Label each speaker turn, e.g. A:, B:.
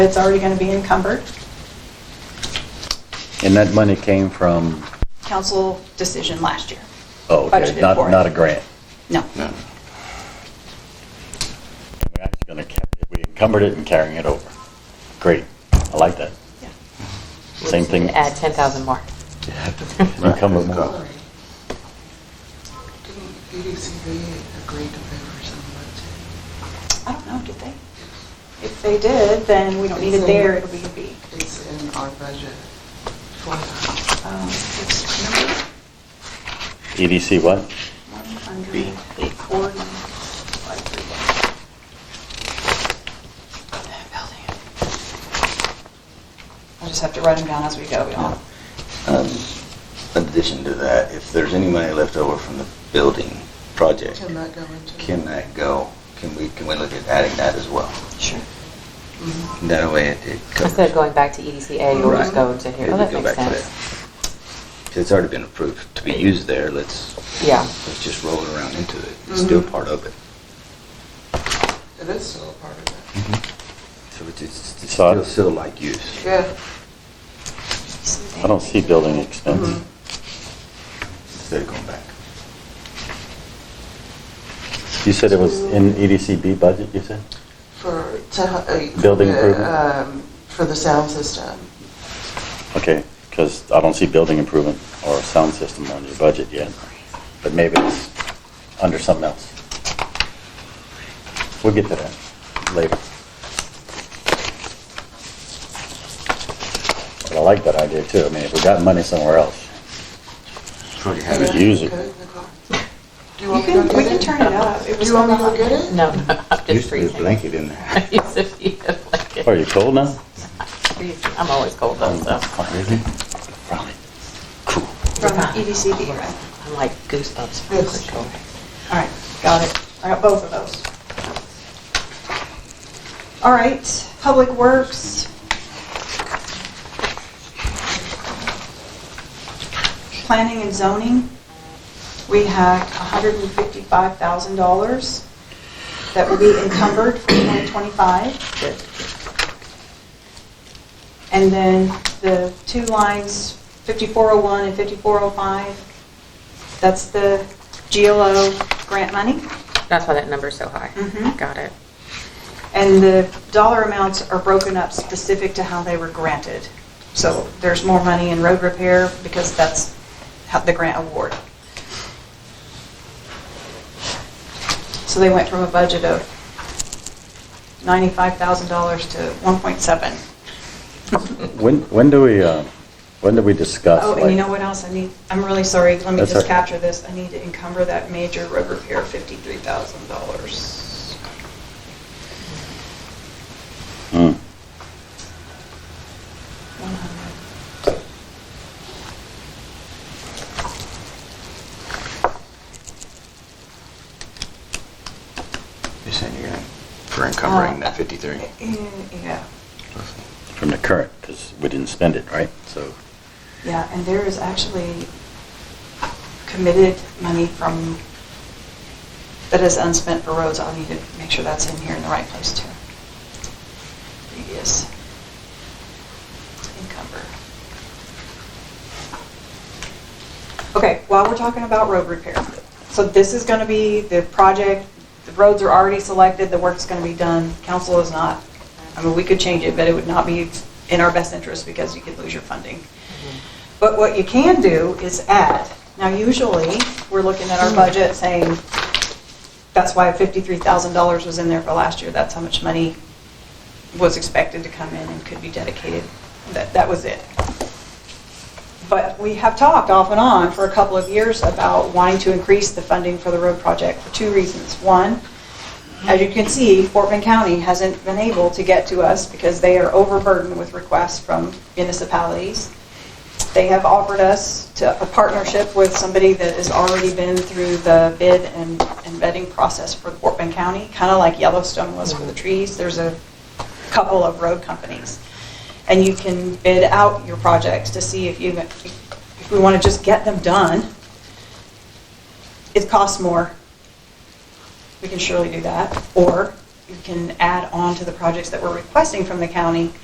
A: It's already going to be encumbered,
B: And that money came from,
A: council decision last year.
B: oh, okay,
A: Budgeted
B: not,
A: for it.
B: not a grant.
A: No,
C: No.
B: We're actually gonna, ca- we encumbered it and carrying it over. Great, I like that.
A: yeah.
B: Same thing.
D: Add 10,000 more.
B: Encumber more.
C: Right.
E: Didn't EDCB agree to pay for some of
A: I don't know, did they? If they did, then we don't need it there, it'll be a B.
E: that? It's in our budget for that.
A: Um, it's number
B: EDC E what?
A: 140, 531. That building. I'll just have to write them down as we go, we don't.
F: Um, In addition to that, if there's any money left over from the building project,
E: Can that go into?
F: can that go, can we, can we look at adding that as well?
A: Sure.
E: Mhm.
F: That way it it covers.
D: Instead of going back to E EDCA, you'll just
F: Right.
D: go into here.
F: Yeah,
D: Oh,
F: we
D: that
F: go
D: makes
F: back to
D: sense.
F: that. 'Cause It's already been approved to be used there, let's,
D: Yeah.
F: let's just roll it around into it, it's still
E: Mhm.
F: part of it.
E: It is still a part of it.
F: So it's, it's it's
B: So-
F: still, still like use.
E: Yeah.
B: I don't see building expense.
E: Mhm.
A: Mm-hmm.
F: Instead of going back.
B: You said it was in E EDCB budget, you said?
E: For, to, uh.
B: Building
E: for the,
B: improvement?
E: um, For the sound system.
B: Okay, because I don't see building improvement or sound system on your budget yet, but maybe it's under something else. We'll get to that later. But I like that idea too. I mean, if we got money somewhere else,
F: Already
B: have it.
E: Yeah.
B: Use it.
E: Okay, Nicole. Do you
A: You
E: want me to
A: can,
E: go
A: we
E: get
A: can
E: it?
A: turn it up. It
E: Do
A: was
E: you want me to
A: not-
E: go get it?
D: No, no, I'm just
F: Used to be a
D: freezing.
F: blanket in there.
D: Used to be a blanket.
B: are you cold now?
D: Freezing. I'm always cold though, so.
F: Mm.
B: Really? Probably. Cool.
A: From E EDCD, right?
D: I'm like goosebumps. from
E: Yes.
D: cold.
A: All right, got it. I got both of those. All right, Public Works. Planning and zoning, we had $155,000 that will be encumbered for 2025. And then the two lines, 5401 and 5405, that's the GLO grant money.
D: That's why that number's so high.
A: Mhm.
D: Got it.
A: And the dollar amounts are broken up specific to how they were granted. So there's more money in road repair because that's how the grant award. So they went from a budget of $95,000 to 1.7.
B: When, when do we, uh, when do we discuss?
A: Oh, and you
B: like-
A: know what else I need? I'm really sorry, let me
B: That's
A: just
B: okay.
A: capture this. I need to encumber that major road repair, $53,000.
B: Hmm.
A: 100.
F: You're saying you're gonna, for encumbering
A: Uh,
F: that fifty-three?
A: Yeah,
B: From the current, because we didn't spend it, right? So,
A: yeah, and there is actually committed money from, that is unspent for roads. I'll need to make sure that's in here in the right place too. Previous encumber. Okay, while we're talking about road repair, so this is gonna be the project, the roads are already selected, the work's gonna be done, council is not, I mean, we could change it, but it would not be in our best interest because you could lose your funding. But what you can do is add, now usually, we're looking at our budget saying, that's why $53,000 was in there for last year, that's how much money was expected to come in and could be dedicated, that, that was it. But we have talked off and on for a couple of years about wanting to increase the funding for the road project for two reasons. One, as you can see, Fort Bend County hasn't been able to get to us because they are overburdened with requests from municipalities. They have offered us to, a partnership with somebody that has already been through the bid and and vetting process for Fort Bend County, kind of like Yellowstone was for the trees. There's a couple of road companies. And you can bid out your projects to see if you, if we want to just get them done. It costs more. We can surely do that. Or you can add on to the projects that we're requesting from the county